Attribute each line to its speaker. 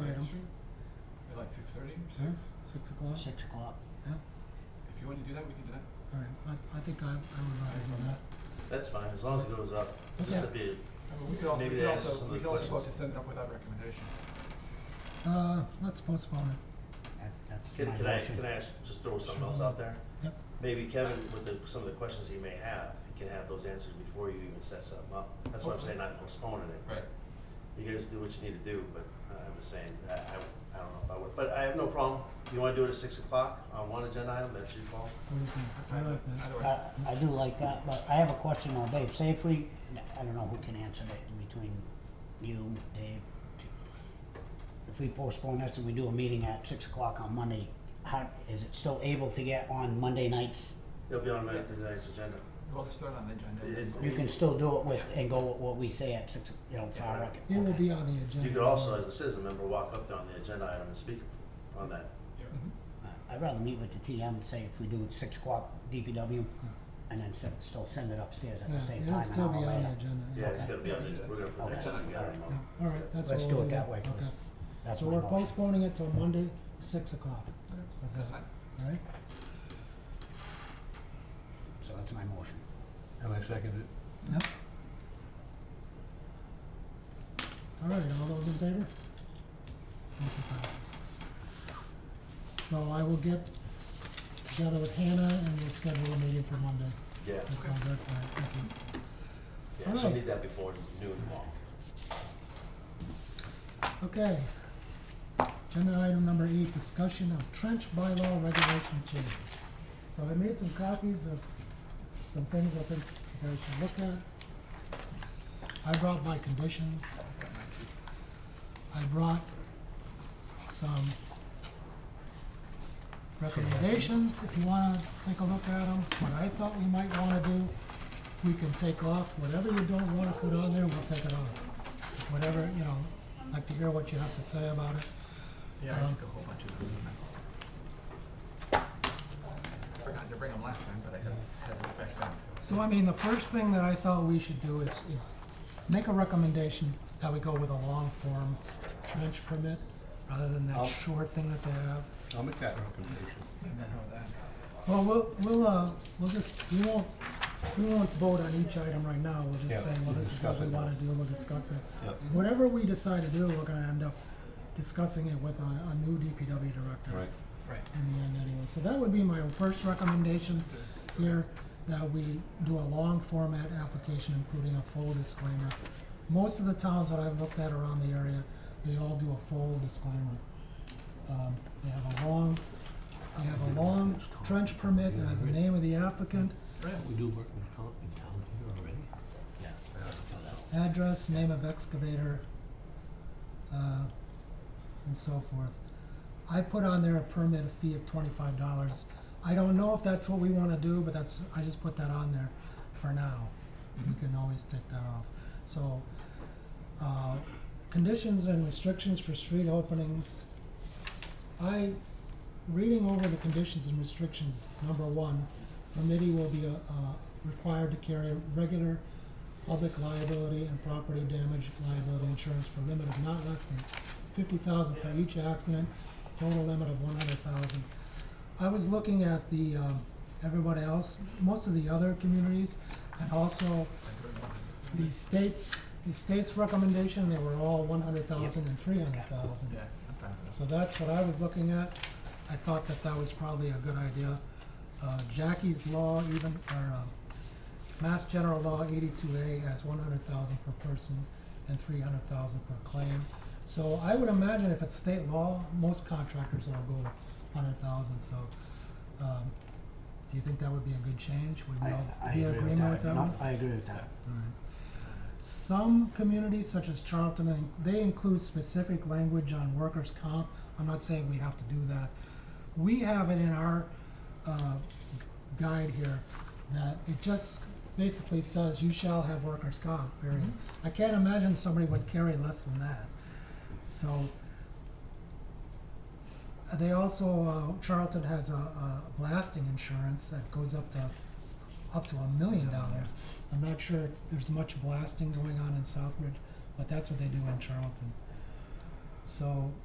Speaker 1: Street, at like six thirty or six, six o'clock?
Speaker 2: six o'clock.
Speaker 1: Yeah, if you wanna do that, we can do that.
Speaker 3: All right, I, I think I, I would rather do that.
Speaker 4: That's fine, as long as it goes up, just to be,
Speaker 1: I mean, we could also, we
Speaker 4: Maybe
Speaker 1: could
Speaker 4: they ask
Speaker 1: also,
Speaker 4: some of
Speaker 1: we
Speaker 4: the
Speaker 1: could also vote to
Speaker 4: questions.
Speaker 1: send it up without recommendation.
Speaker 3: Uh, let's postpone it.
Speaker 2: That, that's my
Speaker 4: can,
Speaker 2: motion.
Speaker 4: can I, can I ask, just throw something else out there?
Speaker 3: Yep.
Speaker 4: Maybe Kevin, with the, some of the questions he may have, he can have those answers before you even set something up. That's why I'm saying not postponing it.
Speaker 1: Right.
Speaker 4: You guys do what you need to do, but uh, I'm just saying, I, I, I don't know if I would, but I have no problem. You wanna do it at six o'clock on one agenda item, that's your call.
Speaker 3: What do you think? I like that.
Speaker 1: Either way,
Speaker 2: I, I do like that, but I have a question on Dave. Say if we, I don't know who can answer that in between you, Dave. If we postpone this and we do a meeting at six o'clock on Monday, how, is it still able to get on Monday nights?
Speaker 4: It'll be on the the next agenda.
Speaker 1: we'll just throw it on the agenda.
Speaker 4: It's-
Speaker 2: You can still do it with, and go with what we say at six, you know, far rec.
Speaker 3: It will be on the agenda.
Speaker 4: You could also, as a citizen member, walk up there on the agenda item and speak on that.
Speaker 1: Mhm.
Speaker 3: Mm-hmm.
Speaker 2: Uh, I'd rather meet with the TM, say if we do it six o'clock DPW, and then se- still send it upstairs at
Speaker 3: Yeah,
Speaker 2: the same
Speaker 3: it'll
Speaker 2: time an
Speaker 3: still be on
Speaker 2: hour
Speaker 3: the
Speaker 2: later.
Speaker 3: agenda.
Speaker 4: Yeah, it's
Speaker 2: Okay.
Speaker 4: gonna be on the, we're gonna put that
Speaker 2: Okay.
Speaker 4: agenda together tomorrow.
Speaker 3: All right, that's what
Speaker 2: Let's
Speaker 3: we'll do.
Speaker 2: do it that way, please.
Speaker 3: Okay.
Speaker 2: That's
Speaker 3: So
Speaker 2: my
Speaker 3: we're
Speaker 2: motion.
Speaker 3: postponing it till Monday, six o'clock,
Speaker 1: That's fine.
Speaker 3: all right?
Speaker 2: So that's my motion.
Speaker 5: And I second it.
Speaker 3: Yep. All right, all those in favor? Motion passes. So I will get together with Hannah and we'll schedule a meeting for Monday.
Speaker 4: Yeah,
Speaker 3: That sounds good, all right, thank you.
Speaker 4: yeah, so
Speaker 3: Alright.
Speaker 4: need that before noon tomorrow.
Speaker 3: Okay. Agenda item number eight, discussion of trench bylaw regulation change. So I made some copies of some things I think you guys should look at. I brought my conditions. I brought some recommendations, if you wanna take a look at them, what I thought we might wanna do. We can take off, whatever you don't wanna put on there, we'll take it off. Whatever, you know, I'd like to hear what you have to say about it.
Speaker 1: Yeah, I
Speaker 3: Um,
Speaker 1: took a whole bunch of those emails. Forgot to bring them last time, but I had, had it back down.
Speaker 3: So I mean, the first thing that I thought we should do is, is make a recommendation that we go with a long form trench permit rather than that
Speaker 5: I'll-
Speaker 3: short thing that they have.
Speaker 5: I'll make that recommendation.
Speaker 1: I don't know that.
Speaker 3: Well, we'll, we'll, uh, we'll just, we won't, we won't vote on each item right now, we'll
Speaker 5: Yeah,
Speaker 3: just say, well,
Speaker 5: we'll
Speaker 3: this is what
Speaker 5: discuss
Speaker 3: we
Speaker 5: it now.
Speaker 3: wanna do, we'll discuss it.
Speaker 5: Yeah.
Speaker 3: Whatever we decide to do, we're gonna end up discussing it with a, a new DPW director.
Speaker 5: Right.
Speaker 1: Right.
Speaker 3: in the end anyway. So that would be my first recommendation here, that we do a long format application, including a full disclaimer. Most of the towns that I've looked at around the area, they all do a full disclaimer. Um, they have a long, they have a long trench permit that has the name of the applicant,
Speaker 5: We do work in town, in town here already?
Speaker 2: Yeah.
Speaker 3: address, name of excavator, uh, and so forth. I put on there a permit fee of twenty-five dollars. I don't know if that's what we wanna do, but that's, I just put that on there for now.
Speaker 1: Mm-hmm.
Speaker 3: We can always take that off. So, uh, conditions and restrictions for street openings. I, reading over the conditions and restrictions, number one, committee will be, uh, uh, required to carry regular public liability and property damage liability insurance for a limit of not less than fifty thousand for each accident, total limit of one hundred thousand. I was looking at the, um, everybody else, most of the other communities, and also the states, the state's recommendation, they were all one hundred thousand and three hundred thousand.
Speaker 1: Yeah, I'm fine with
Speaker 3: So that's what I was looking at. I thought that that was probably a good idea. Uh, Jackie's Law even, or, um, Mass General Law eighty-two A has one hundred thousand per person and three hundred thousand per claim. So I would imagine if it's state law, most contractors will go hundred thousand, so, um, do you think that would be a good change? Would we
Speaker 2: I,
Speaker 3: all
Speaker 2: I
Speaker 3: be in
Speaker 2: agree with
Speaker 3: agreement
Speaker 2: that.
Speaker 3: with that
Speaker 2: No,
Speaker 3: one?
Speaker 2: I agree with that.
Speaker 3: Some communities, such as Charlton, and they include specific language on workers' comp. I'm not saying we have to do that. We have it in our uh, guide here that it just basically says you shall have workers' comp, period. I can't imagine somebody would carry less than that. So uh, they also, uh, Charlton has a, a blasting insurance that goes up to up to a million dollars. I'm not sure it's, there's much blasting going on in Southbridge, but that's what they do in Charlton. So